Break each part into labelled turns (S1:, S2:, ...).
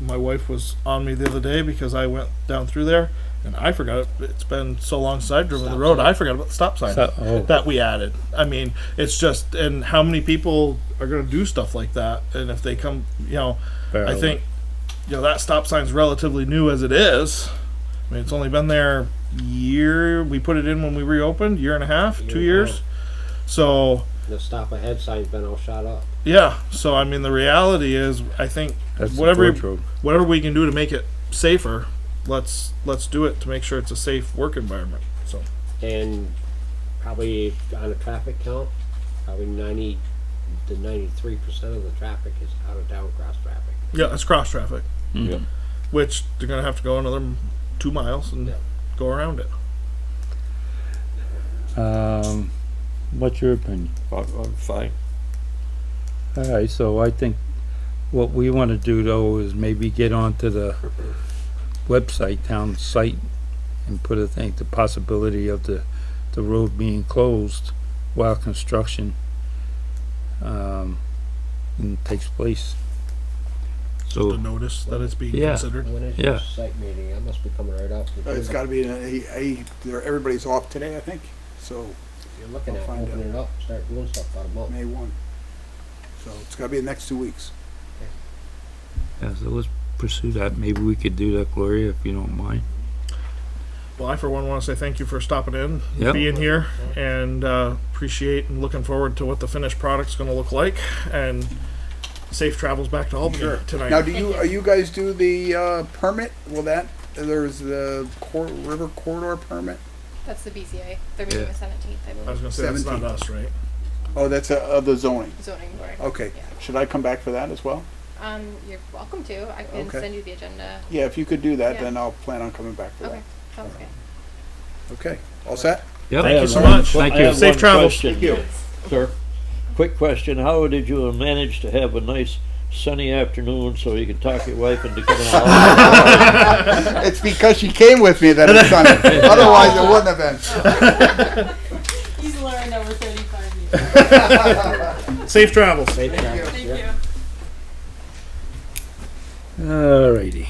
S1: my wife was on me the other day because I went down through there and I forgot it. It's been so long since I've driven the
S2: Stop
S1: road.
S2: sign.
S1: I forgot about the stop sign
S3: So- oh.
S1: that we added. I mean, it's just and how many people are going to do stuff like that? And if they come, you know,
S3: Fair
S1: I think you know that stop sign's relatively new as it is. I mean, it's only been there year. We put it in when we reopened, year and a half, two
S2: Year and a
S1: years. So
S2: The stop ahead sign's been all shot up.
S1: yeah. So I mean, the reality is, I think
S3: That's the
S1: whatever
S3: George Road.
S1: whatever we can do to make it safer, let's let's do it to make sure it's a safe work environment. So
S2: And probably on a traffic count, probably ninety to ninety-three percent of the traffic is out of town cross traffic.
S1: yeah, it's cross traffic,
S4: Mm-hmm.
S3: Mhm.
S5: Yep.
S1: which they're gonna have to go another m- two miles and
S2: Yeah.
S1: go around it.
S3: Um, what's your opinion?
S5: I'm, I'm fine.
S3: All right, so I think what we want to do though is maybe get onto the website, town site, and put a thing, the possibility of the, the road being closed while construction, um, and takes place.
S1: Just
S3: So,
S1: to notice that it's being
S3: Yeah.
S1: considered.
S2: When is
S3: Yeah.
S2: your site meeting? I must be coming right up.
S4: Uh, It's gotta be, in a- he, he, they're- everybody's off today, I think, so,
S2: You're looking
S4: I'll
S2: at
S4: find
S2: opening it up, start doing stuff about a month.
S4: May one. So it's gotta be the next two weeks.
S3: yeah, so let's pursue that. Maybe we could do that, Gloria, if you don't mind.
S1: Well, I for one want to say thank you for stopping in,
S3: Yep.
S1: being here, and uh, appreciate and looking forward to what the finished product's going to look like. And safe travels back to Albany tonight.
S4: Now, do you, are you guys do the, uh, permit? Will that, there's the cor- river corridor permit?
S6: That's the BZA. They're meeting
S3: Yeah.
S6: the seventeenth, I
S1: I was
S6: believe.
S1: going to say that's not us, right?
S4: Oh, that's, uh, of the zoning.
S6: Zoning board.
S4: Okay.
S6: Yeah.
S4: Should I come back for that as well?
S6: Um, you're welcome to. I can
S4: Okay.
S6: send you the agenda.
S4: Yeah, if you could do that,
S6: Yeah.
S4: then I'll plan on coming back for
S6: Okay,
S4: that.
S6: sounds good.
S4: Okay, all set?
S3: Yep.
S1: Thank you so
S5: one
S1: much.
S5: que-
S3: Thank
S5: I
S3: you.
S5: have
S1: Safe
S5: one
S1: travels.
S5: question, Sir, quick question. How did you manage to have a nice sunny afternoon so you could talk your wife into coming along?
S4: It's because she came with me that it's sunny. Otherwise, it wouldn't have been.
S6: He's learned over thirty-five years.
S1: Safe travels.
S2: Safe travels,
S6: Thank
S2: yeah.
S6: you.
S3: Alrighty.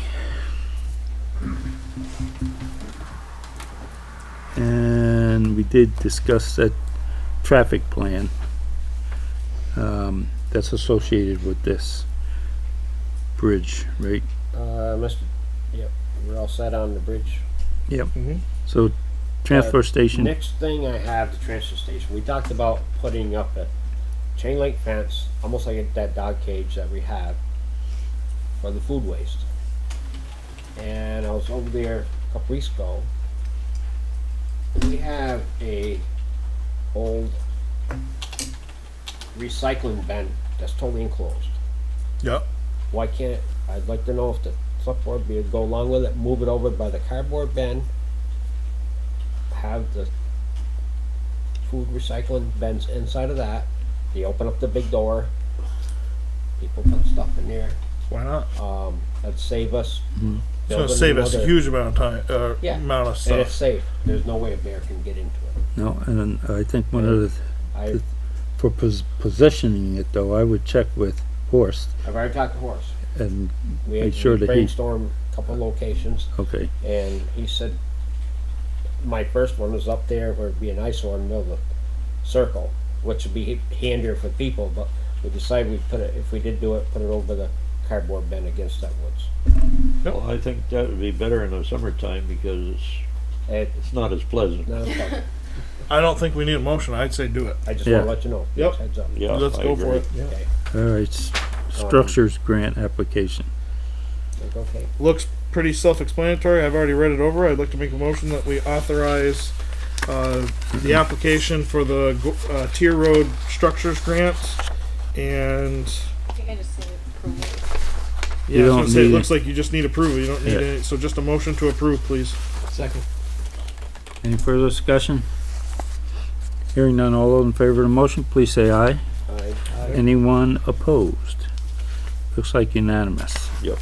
S3: And we did discuss that traffic plan, um, that's associated with this bridge, right?
S2: Uh, Mr., yep, we're all set on the bridge.
S3: So, transfer station,
S2: Next thing I have, the transfer station. We talked about putting up a chain link fence, almost like that dog cage that we have for the food waste. And I was over there a couple weeks ago. We have a old recycling bin that's totally enclosed.
S1: Yep.
S2: Why can't it, I'd like to know if the select board would go along with it, move it over by the cardboard bin, have the food recycling bins inside of that, they open up the big door, people put stuff in there,
S1: Why not?
S2: um, that'd save us.
S3: Mm-hmm.
S1: It's going to
S2: building
S1: save us a
S2: another-
S1: huge amount of time, uh,
S2: Yeah.
S1: amount of
S2: And it's
S1: stuff.
S2: safe, there's no way a bear can get into it.
S3: no, and I think one of the,
S2: I,
S3: for pos- positioning it though, I would check with Horst
S2: I've already talked to Horace,
S3: and,
S2: we
S3: Make sure that he-
S2: brainstormed a couple locations,
S3: okay,
S2: And he said, my first one was up there where it'd be an eyesore in the middle of the circle, which would be handier for people, but we decided we'd put it, if we did do it, put it over the cardboard bin against that woods.
S5: Well, I think that would be better in the summertime because it's,
S2: And
S5: it's not as pleasant.
S2: no, no,
S1: I don't think we need a motion. I'd say do it.
S2: I just
S3: Yeah.
S2: wanna let you know,
S1: Yep.
S2: heads up.
S5: Yeah,
S1: Let's
S5: I
S1: go for
S5: agree.
S1: it. Yeah.
S3: alright, s- structures grant application.
S2: Like, okay,
S1: looks pretty self-explanatory. I've already read it over. I'd like to make a motion that we authorize uh, the application for the go- uh, tier road structures grant. And
S6: I think I just need approval.
S1: yeah, I was
S3: don't
S1: gonna say, it
S3: need-
S1: looks like you just need approval. You don't need
S3: Yeah.
S1: any. So just a motion to approve, please. Second.
S3: Any further discussion? Hearing none, all those in favor of the motion, please say aye.
S2: I,
S3: Anyone opposed? Looks like unanimous.
S5: Yep.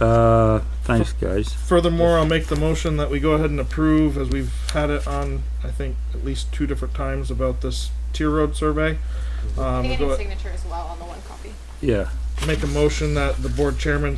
S3: Uh, thanks, guys.
S1: Furthermore, I'll make the motion that we go ahead and approve, as we've had it on, I think, at least two different times about this tier road survey.
S6: I
S1: Um, go
S6: think I need
S1: ahead-
S6: signature as well on the one copy.
S3: Yeah.
S1: make a motion that the board chairman